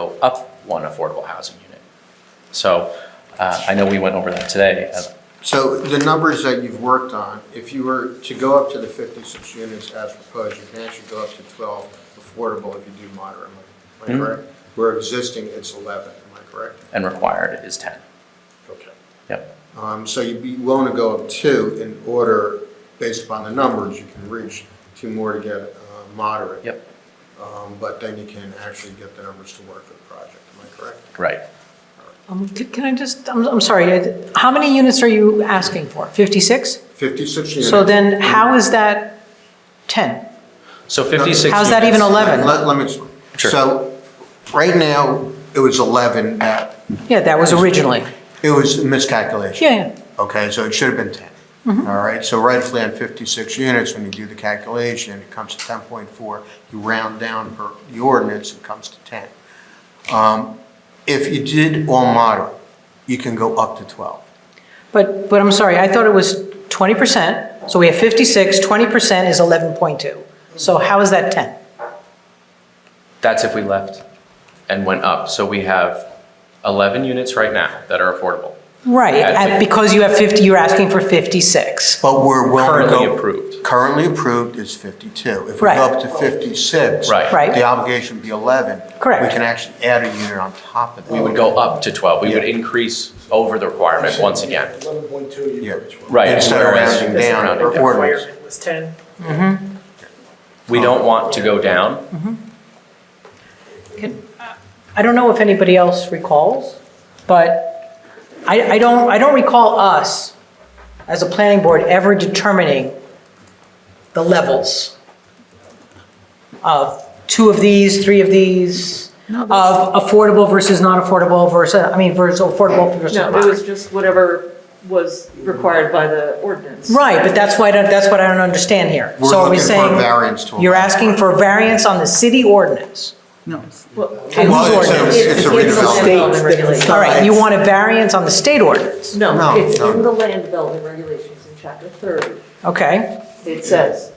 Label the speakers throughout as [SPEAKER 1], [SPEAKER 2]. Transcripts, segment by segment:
[SPEAKER 1] go up one affordable housing unit. So uh, I know we went over that today. Uh,
[SPEAKER 2] So the numbers that you've worked on, if you were to go up to the 56 units as proposed, you can actually go up to 12 affordable if you do moderately. Am I
[SPEAKER 1] Mhm.
[SPEAKER 2] correct? Where existing, it's 11, am I correct?
[SPEAKER 1] And required is 10.
[SPEAKER 2] Okay.
[SPEAKER 1] Yep.
[SPEAKER 2] Um, So you'd be willing to go up two in order, based upon the numbers, you can reach two more to get uh, moderate.
[SPEAKER 1] Yep.
[SPEAKER 2] Um, But then you can actually get the numbers to work for the project, am I correct?
[SPEAKER 1] Right.
[SPEAKER 3] Um, c- Can I just, I'm, I'm sorry, I- how many units are you asking for? 56?
[SPEAKER 2] 56 units.
[SPEAKER 3] So then how is that 10?
[SPEAKER 1] So 56.
[SPEAKER 3] How's that
[SPEAKER 1] units.
[SPEAKER 3] even 11?
[SPEAKER 2] Let let me explain.
[SPEAKER 1] Sure.
[SPEAKER 2] So, right now, it was 11 that,
[SPEAKER 3] Yeah, that was originally.
[SPEAKER 2] it was a miscalculation.
[SPEAKER 3] Yeah, yeah.
[SPEAKER 2] Okay, so it should have been 10.
[SPEAKER 3] Mm-hmm.
[SPEAKER 2] All right, so rightfully on 56 units, when you do the calculation, it comes to 10.4. You round down per the ordinance, it comes to 10. Um, If you did all moderate, you can go up to 12.
[SPEAKER 3] But, but I'm sorry, I thought it was 20%, so we have 56, 20% is 11.2. So how is that 10?
[SPEAKER 1] That's if we left and went up. So we have 11 units right now that are affordable,
[SPEAKER 3] Right,
[SPEAKER 1] Yeah, I
[SPEAKER 3] and
[SPEAKER 1] think-
[SPEAKER 3] because you have 50, you're asking for 56.
[SPEAKER 2] But we're willing to go.
[SPEAKER 1] currently approved.
[SPEAKER 2] Currently approved is 52. If we
[SPEAKER 3] Right.
[SPEAKER 2] go up to 56.
[SPEAKER 1] Right.
[SPEAKER 3] Right.
[SPEAKER 2] The obligation would be 11.
[SPEAKER 3] Correct.
[SPEAKER 2] We can actually add a unit on top of that.
[SPEAKER 1] We would go up to 12. We would
[SPEAKER 2] Yeah.
[SPEAKER 1] increase over the requirement once again.
[SPEAKER 4] Eleven point two, you
[SPEAKER 2] Yeah.
[SPEAKER 4] put twelve.
[SPEAKER 1] Right.
[SPEAKER 2] Instead of
[SPEAKER 1] whereas-
[SPEAKER 2] rounding down,
[SPEAKER 1] rounding
[SPEAKER 2] or-
[SPEAKER 5] That
[SPEAKER 2] Ordinance.
[SPEAKER 5] requirement was 10.
[SPEAKER 1] We don't want to go down.
[SPEAKER 3] Can- I don't know if anybody else recalls, but I, I don't, I don't recall us, as a planning board, ever determining the levels of two of these, three of these, of affordable versus non-affordable versus, I mean, versus affordable versus
[SPEAKER 6] No,
[SPEAKER 3] not.
[SPEAKER 6] it was just whatever was required by the ordinance.
[SPEAKER 3] Right, but that's why, I don't- that's what I don't understand here.
[SPEAKER 2] We're
[SPEAKER 3] So are we
[SPEAKER 2] looking for a
[SPEAKER 3] saying
[SPEAKER 2] variance to
[SPEAKER 3] You're
[SPEAKER 2] allow.
[SPEAKER 3] asking for a variance on the city ordinance?
[SPEAKER 6] Well,
[SPEAKER 3] Well, it's a-
[SPEAKER 2] it's a
[SPEAKER 6] in the land
[SPEAKER 2] redevelopment.
[SPEAKER 6] development regulations.
[SPEAKER 3] All right, you want a variance on the state ordinance,
[SPEAKER 2] No,
[SPEAKER 6] No, it's
[SPEAKER 2] no.
[SPEAKER 6] in the land development regulations in chapter 30.
[SPEAKER 3] okay?
[SPEAKER 6] It says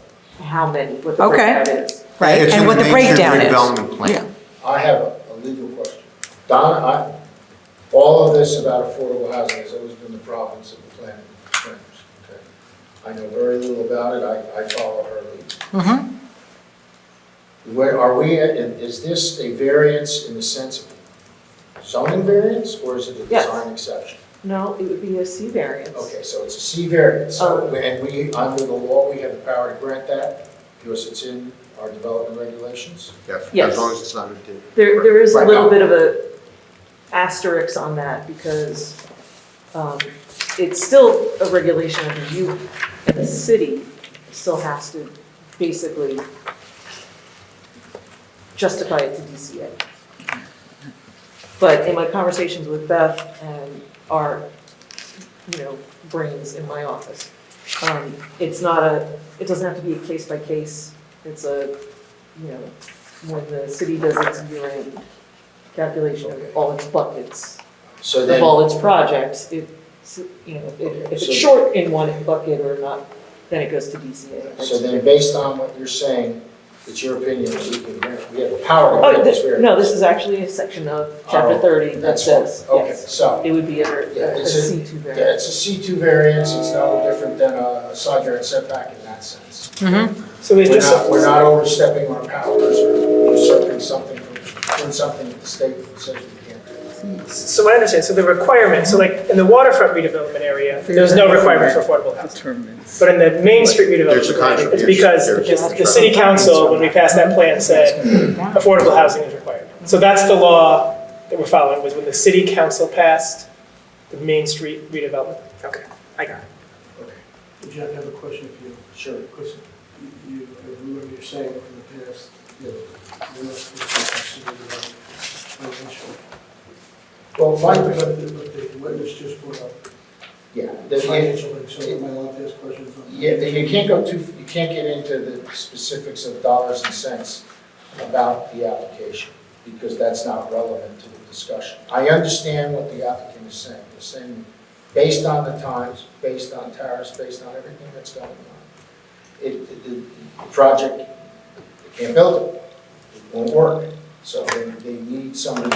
[SPEAKER 6] how many, what the
[SPEAKER 3] Okay.
[SPEAKER 6] breakout is.
[SPEAKER 3] Right,
[SPEAKER 2] It's
[SPEAKER 3] and
[SPEAKER 2] in
[SPEAKER 3] what the
[SPEAKER 2] major
[SPEAKER 3] breakdown is.
[SPEAKER 2] Redevelopment plan.
[SPEAKER 4] I have a a legal question. Don, I, all of this about affordable housing has always been the province of the planning commissioners, okay? I know very little about it, I, I follow her lead. Where, are we, at- and is this a variance in the sense of zoning variance, or is it a
[SPEAKER 6] Yes.
[SPEAKER 4] design exception?
[SPEAKER 6] No, it would be a C variance.
[SPEAKER 4] Okay, so it's a C variance, so,
[SPEAKER 6] Oh.
[SPEAKER 4] and we, under the law, we have the power to grant that, because it's in our development regulations?
[SPEAKER 2] Yes, as
[SPEAKER 6] Yes.
[SPEAKER 2] long as it's not a D.
[SPEAKER 6] There, there is a
[SPEAKER 4] Right.
[SPEAKER 6] little bit of a asterisk on that because um, it's still a regulation that you, and the city still has to basically justify it to DCA. But in my conversations with Beth and our, you know, brains in my office, um, it's not a, it doesn't have to be a case by case. It's a, you know, when the city does its year-end calculation of all its buckets,
[SPEAKER 4] So
[SPEAKER 6] of
[SPEAKER 4] then,
[SPEAKER 6] all its projects, it's, you know, if if it's short in one bucket or not, then it goes to DCA.
[SPEAKER 4] so then based on what you're saying, it's your opinion, that we can grant, we have the power to
[SPEAKER 6] Oh,
[SPEAKER 4] grant this
[SPEAKER 6] this,
[SPEAKER 4] variance.
[SPEAKER 6] no, this is actually a section of chapter
[SPEAKER 4] Oh,
[SPEAKER 6] thirty that
[SPEAKER 4] That's what-
[SPEAKER 6] says,
[SPEAKER 4] Okay,
[SPEAKER 6] yes,
[SPEAKER 4] so,
[SPEAKER 6] it would be a,
[SPEAKER 4] Yeah,
[SPEAKER 6] a
[SPEAKER 4] it's a-
[SPEAKER 6] C two
[SPEAKER 4] yeah,
[SPEAKER 6] variance.
[SPEAKER 4] it's a C2 variance, it's no different than a a side yard setback in that sense.
[SPEAKER 5] So they
[SPEAKER 4] We're
[SPEAKER 5] just.
[SPEAKER 4] not, we're not overstepping our powers or usurping something from, doing something that the state says we can't do.
[SPEAKER 5] So what I understand, so the requirement, so like in the waterfront redevelopment area, there's no requirement for affordable housing. But in the Main Street
[SPEAKER 2] There's a
[SPEAKER 5] redevelopment, area, it's
[SPEAKER 2] contribution.
[SPEAKER 5] because
[SPEAKER 2] There's-
[SPEAKER 5] the the city council, when we passed that plan, said affordable housing is required. So that's the law that we're following, was when the city council passed the Main Street redevelopment. Okay, I got it.
[SPEAKER 7] Jack, I have a question for you.
[SPEAKER 4] Sure.
[SPEAKER 7] Because you, you- I remember you're saying in the past, you know, you're not supposed to consider the financial.
[SPEAKER 4] Well,
[SPEAKER 7] But
[SPEAKER 4] my,
[SPEAKER 7] the- but the witness just brought up
[SPEAKER 4] yeah, the,
[SPEAKER 7] financial, aid, so am I allowed to ask questions on that?
[SPEAKER 4] Yeah, you can't go too, you can't get into the specifics of dollars and cents about the application, because that's not relevant to the discussion. I understand what the applicant is saying, they're saying, based on the times, based on tariffs, based on everything that's going on, it, the- the, the project, they can't build it, it won't work, so they, they need somebody